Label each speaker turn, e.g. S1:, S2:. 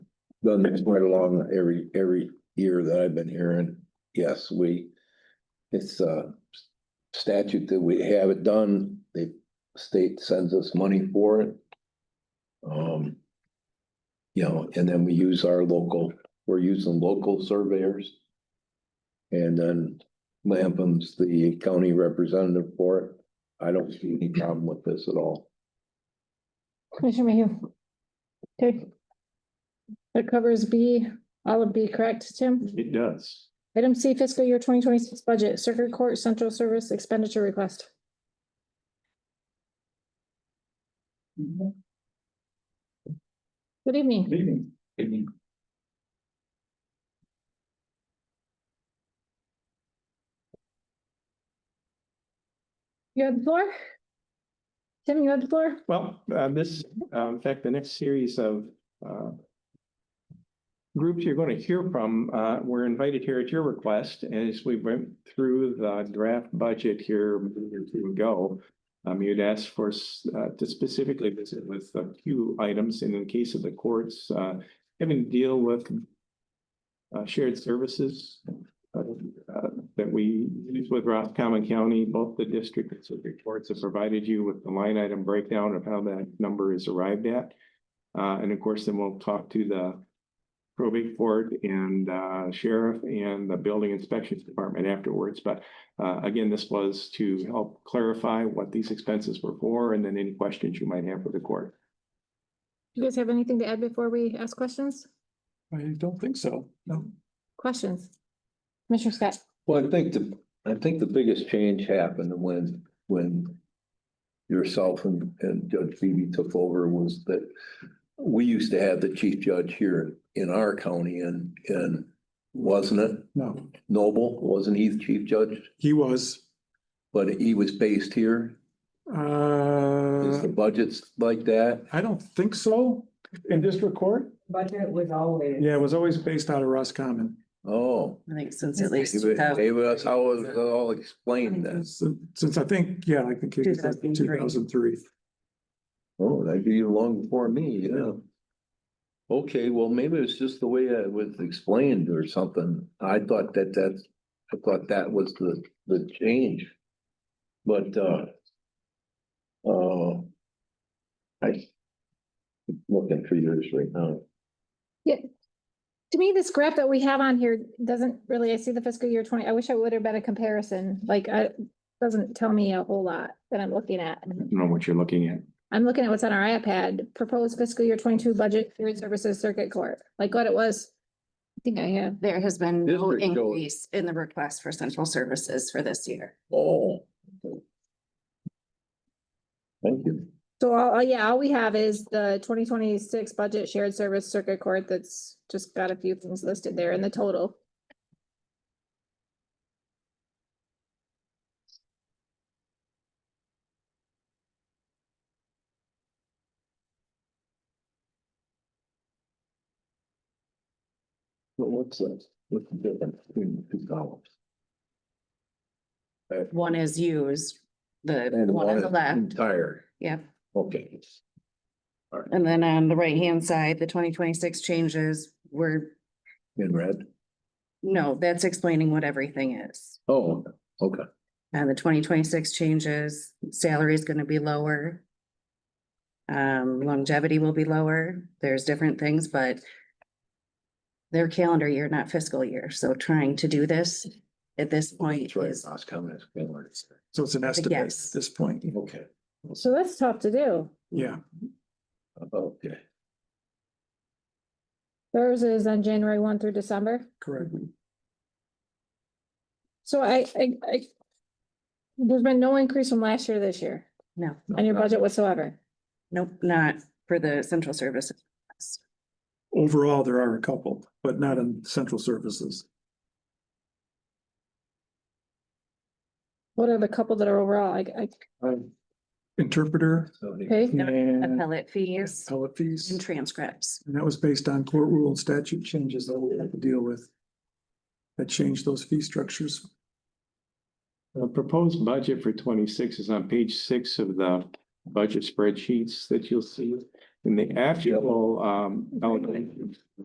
S1: done this right along every, every year that I've been here and yes, we. It's a statute that we have it done. The state sends us money for it. Um. You know, and then we use our local, we're using local surveyors. And then Lampum's the county representative for it. I don't see any problem with this at all.
S2: Commissioner Mayhew. Okay. That covers B, all of B, correct, Tim?
S3: It does.
S2: Item C fiscal year twenty twenty-six budget, Circuit Court Central Service Expenditure Request. Good evening.
S3: Meeting. Meeting.
S2: You have the floor? Tim, you have the floor?
S3: Well, uh, this, uh, in fact, the next series of uh, groups you're going to hear from uh, were invited here at your request as we went through the draft budget here a minute or two ago. Um, You'd asked for s- uh, to specifically visit with a few items and in the case of the courts, uh, having to deal with uh, shared services uh, uh, that we use with Roscommon County, both the district and circuit courts have provided you with the line item breakdown of how that number is arrived at. Uh, and of course, then we'll talk to the probate court and uh, sheriff and the building inspections department afterwards. But uh, again, this was to help clarify what these expenses were for and then any questions you might have for the court.
S2: You guys have anything to add before we ask questions?
S3: I don't think so, no.
S2: Questions? Commissioner Scott?
S1: Well, I think the, I think the biggest change happened when, when yourself and, and Judge Phoebe took over was that we used to have the chief judge here in our county and, and wasn't it
S4: No,
S1: Noble? Wasn't he the chief judge?
S4: he was,
S1: But he was based here. Is
S4: uh,
S1: the
S5: Mm-hmm.
S1: budgets like that?
S4: I don't think so, in district court.
S6: Budget was always.
S4: Yeah, it was always based out of Roscommon.
S1: Oh.
S5: I think since at least.
S1: David,
S5: 2000.
S1: David, that's how it was all explained then.
S4: Since since I think, yeah, I think it was
S5: 2003.
S4: two thousand three.
S1: Oh, that'd be long before me, yeah. Okay, well, maybe it's just the way it was explained or something. I thought that that's, I thought that was the, the change. But, uh, uh, I, looking for yours right now.
S2: To me, this graph that we have on here doesn't really, I see the fiscal year twenty, I wish I would have been a comparison, like, I, doesn't tell me a whole lot that I'm looking at.
S3: I don't know what you're looking at.
S2: I'm looking at what's on our iPad, proposed fiscal year twenty-two budget, food services circuit court, like what it was. I think I have,
S5: There has been no
S1: District goes-
S5: increase in the request for central services for this year.
S1: Oh. okay. Thank you.
S2: so all, all- yeah, all we have is the twenty twenty-six budget shared service circuit court that's just got a few things listed there in the total.
S1: Well, what's that? What's the difference between the two columns?
S5: One is used, the
S1: And
S5: one on the
S1: is
S5: left,
S1: Entire,
S5: yep.
S1: okay.
S5: And then on the right-hand side, the twenty twenty-six changes were,
S1: In red?
S5: no, that's explaining what everything is.
S1: Oh, okay.
S5: And Uh, the twenty twenty-six changes, salary is gonna be lower. Um, longevity will be lower. There's different things, but their calendar year, not fiscal year. So trying to do this at this point
S1: That's right.
S5: is
S1: Last comment.
S4: So it's an estimate at
S5: guess.
S4: this point.
S1: Okay,
S2: So that's tough to do.
S4: Yeah,
S1: okay.
S2: Theirs is on January one through December.
S4: correct.
S2: So I, I, I. There's been no increase from last year to this year
S5: no,
S2: on your budget whatsoever.
S5: nope, not for the central services.
S4: Overall, there are a couple, but not in central services.
S2: What are the couple that are overall? I, I,
S4: Interpreter
S1: So he-
S2: okay,
S4: and
S5: Appellate fees
S4: appellate fees.
S5: and transcripts.
S4: And that was based on court rule and statute changes that we had to deal with. That changed those fee structures.
S3: The proposed budget for twenty-six is on page six of the budget spreadsheets that you'll see. In the actual, um, allocation